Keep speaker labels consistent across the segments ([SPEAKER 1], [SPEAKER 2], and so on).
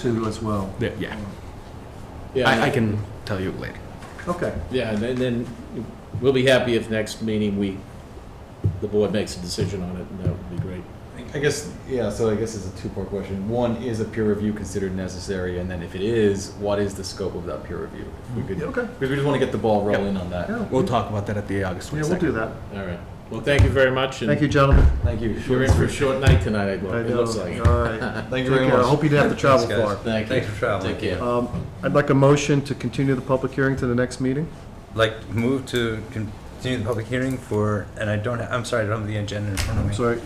[SPEAKER 1] too as well.
[SPEAKER 2] Yeah, yeah.
[SPEAKER 3] Yeah,
[SPEAKER 2] I, I can tell you later.
[SPEAKER 1] Okay,
[SPEAKER 3] yeah, and then- then we'll be happy if next meeting we, the board makes a decision on it, and that would be great.
[SPEAKER 4] I guess, yeah, so I guess it's a two-part question. One, is a peer review considered necessary? And then if it is, what is the scope of that peer review? If we could,
[SPEAKER 1] Yeah, okay.
[SPEAKER 4] because we just want to get the ball rolling on that.
[SPEAKER 1] yeah,
[SPEAKER 2] We'll talk about that at the August
[SPEAKER 1] yeah, we'll
[SPEAKER 2] 22nd.
[SPEAKER 1] do that.
[SPEAKER 3] All right. Well, thank you very much. and
[SPEAKER 1] Thank you, gentlemen.
[SPEAKER 4] Thank you.
[SPEAKER 3] You're in for a short night tonight, it
[SPEAKER 1] I
[SPEAKER 3] loo- it
[SPEAKER 1] know.
[SPEAKER 3] looks like.
[SPEAKER 1] All right.
[SPEAKER 4] Thank
[SPEAKER 1] Take
[SPEAKER 4] you very
[SPEAKER 1] care. I
[SPEAKER 4] much.
[SPEAKER 1] hope you didn't have to travel
[SPEAKER 4] Thanks, guys.
[SPEAKER 1] far.
[SPEAKER 3] Thank you.
[SPEAKER 5] Thanks for traveling.
[SPEAKER 3] Take care.
[SPEAKER 1] Um, I'd like a motion to continue the public hearing to the next meeting.
[SPEAKER 5] Like, move to continue the public hearing for, and I don't, ha- I'm sorry, I don't have the agenda in front of me.
[SPEAKER 1] Sorry,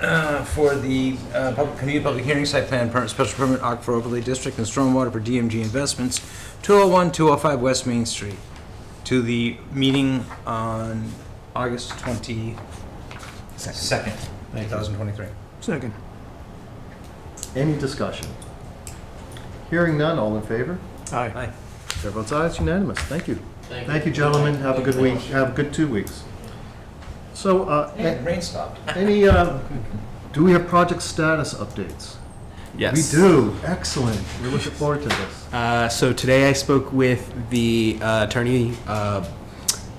[SPEAKER 5] Uh, For the uh, public- community public hearing site plan permit, special permit, Arc for Overlay District and Stormwater for DMG Investments, 201, 205 West Main Street, to the meeting on August 22nd, 2023.
[SPEAKER 1] Second. Any discussion? Hearing none, all in favor?
[SPEAKER 5] Aye.
[SPEAKER 1] Chair votes aye, it's unanimous, thank you. Thank you, gentlemen, have a good week, have a good two weeks. So, uh, a-
[SPEAKER 5] And rain stopped.
[SPEAKER 1] any, uh, do we have project status updates? We
[SPEAKER 2] Yes.
[SPEAKER 1] do, excellent, we're looking forward to this.
[SPEAKER 2] Uh, so today I spoke with the uh, attorney, uh,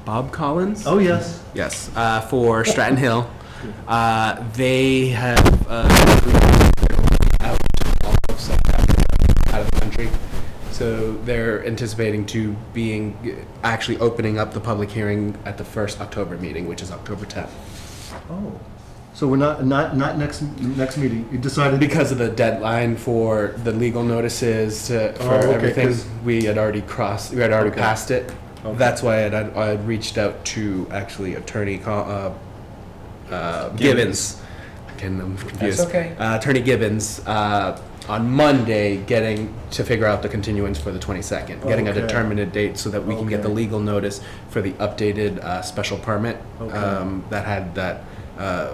[SPEAKER 2] Bob Collins.
[SPEAKER 1] Oh, yes.
[SPEAKER 2] Yes, uh, for Stratton Hill. Uh, they have uh, out of out of the country, so they're anticipating to being actually opening up the public hearing at the first October meeting, which is October 10th,
[SPEAKER 1] Oh, so we're not, not, not next, next meeting, you decided?
[SPEAKER 2] because of the deadline for the legal notices to, for
[SPEAKER 1] Oh, okay,
[SPEAKER 2] everything.
[SPEAKER 1] 'cause-
[SPEAKER 2] We had already crossed, we had already
[SPEAKER 1] Okay.
[SPEAKER 2] passed it.
[SPEAKER 1] Okay.
[SPEAKER 2] That's why I had, I had reached out to actually attorney Co- uh, uh, Gibbons. Again, I'm confused.
[SPEAKER 5] okay.
[SPEAKER 2] Uh, attorney Gibbons uh, on Monday, getting to figure out the continuance for the 22nd, getting a
[SPEAKER 1] Okay.
[SPEAKER 2] determinate date so that we can get the
[SPEAKER 1] Okay.
[SPEAKER 2] legal notice for the updated uh, special permit
[SPEAKER 1] Okay.
[SPEAKER 2] um, that had that. Uh,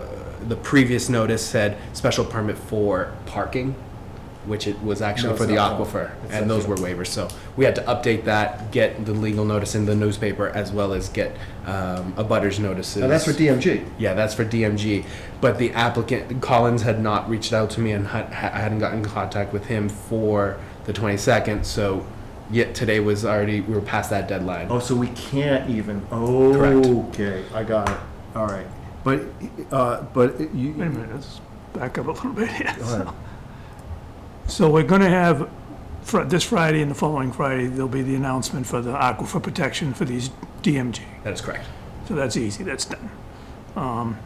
[SPEAKER 2] the previous notice said special permit for parking, which it was actually
[SPEAKER 1] No,
[SPEAKER 2] for
[SPEAKER 1] it's
[SPEAKER 2] the
[SPEAKER 1] not that.
[SPEAKER 2] aquifer,
[SPEAKER 1] It's
[SPEAKER 2] and those
[SPEAKER 1] actually-
[SPEAKER 2] were waivers. So we had to update that, get the legal notice in the newspaper, as well as get um, a butters notices.
[SPEAKER 1] Now, that's for DMG.
[SPEAKER 2] Yeah, that's for DMG. But the applicant Collins had not reached out to me, and had, ha- I hadn't gotten in contact with him for the twenty second. So, yet today was already we were past that deadline.
[SPEAKER 1] Oh, so we can't even, oh, okay, I got it, all right. But, uh, but you.
[SPEAKER 6] Wait a minute, let's back up a little bit here.
[SPEAKER 1] Go ahead.
[SPEAKER 6] So we're gonna have, fr- this Friday and the following Friday, there'll be the announcement for the aquifer protection for these DMG.
[SPEAKER 2] That is correct.
[SPEAKER 6] So that's easy, that's done. Um,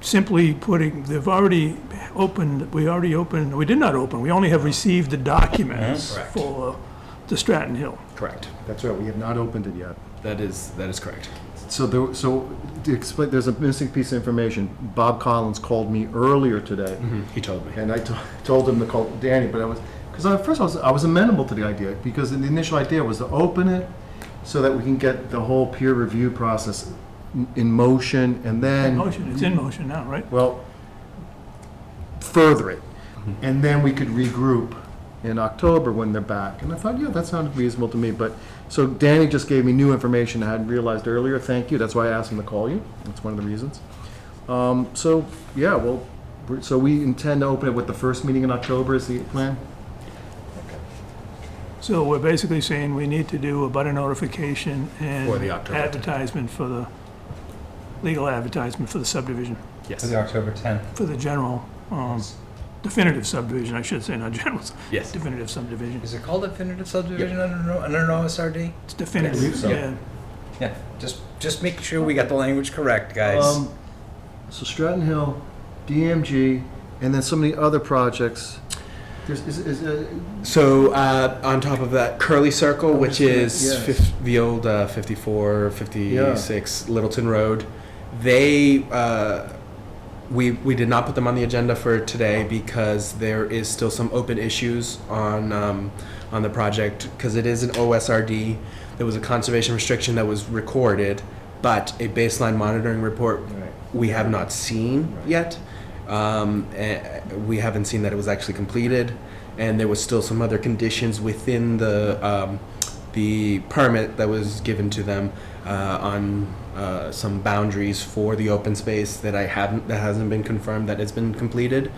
[SPEAKER 6] Simply putting, they've already opened, we already opened, we did not open, we only have received the documents
[SPEAKER 5] Correct.
[SPEAKER 6] for the Stratton Hill.
[SPEAKER 2] Correct.
[SPEAKER 1] That's right, we have not opened it yet.
[SPEAKER 2] That is that is correct.
[SPEAKER 1] So there, so to explain, there's a missing piece of information. Bob Collins called me earlier today,
[SPEAKER 2] He told me.
[SPEAKER 1] and I to- told him to call Danny, but I was, because at first I was, I was amenable to the idea, because the initial idea was to open it so that we can get the whole peer review process in- in motion, and then.
[SPEAKER 6] Motion, it's in motion now, right?
[SPEAKER 1] Well, further it. And then we could regroup in October when they're back. And I thought, yeah, that sounded reasonable to me, but, so Danny just gave me new information I hadn't realized earlier. Thank you. That's why I asked him to call you. That's one of the reasons. Um, so, yeah, well, we're- so we intend to open it with the first meeting in October is the plan?
[SPEAKER 6] So we're basically saying we need to do a butter notification and.
[SPEAKER 2] For the October.
[SPEAKER 6] Advertisement for the, legal advertisement for the subdivision,
[SPEAKER 5] For
[SPEAKER 2] Yes.
[SPEAKER 5] the October 10th.
[SPEAKER 6] for the general, um, definitive subdivision, I should say, not general,
[SPEAKER 2] Yes.
[SPEAKER 6] definitive subdivision.
[SPEAKER 5] Is it called definitive subdivision under, under an OSRD?
[SPEAKER 6] It's definitive,
[SPEAKER 1] so.
[SPEAKER 6] yeah.
[SPEAKER 5] Yeah, just, just making sure we got the language correct, guys.
[SPEAKER 1] Um, So Stratton Hill, DMG, and then so many other projects. There's, is, is, uh,
[SPEAKER 2] So uh, on top of that, Curly Circle,
[SPEAKER 1] I'm
[SPEAKER 2] which
[SPEAKER 1] just gonna-
[SPEAKER 2] is
[SPEAKER 1] yes.
[SPEAKER 2] fif- the old uh, 54, 56 Littleton Road, they uh, we we did not put them on the agenda for today because there is still some open issues on um, on the project because it is an OSRD. There was a conservation restriction that was recorded, but a baseline monitoring report
[SPEAKER 1] Right.
[SPEAKER 2] we have not seen
[SPEAKER 1] Right.
[SPEAKER 2] yet. Um, eh, we haven't seen that it was actually completed, and there was still some other conditions within the um, the permit that was given to them uh, on uh, some boundaries for the open space that I haven't that hasn't been confirmed that it's been completed.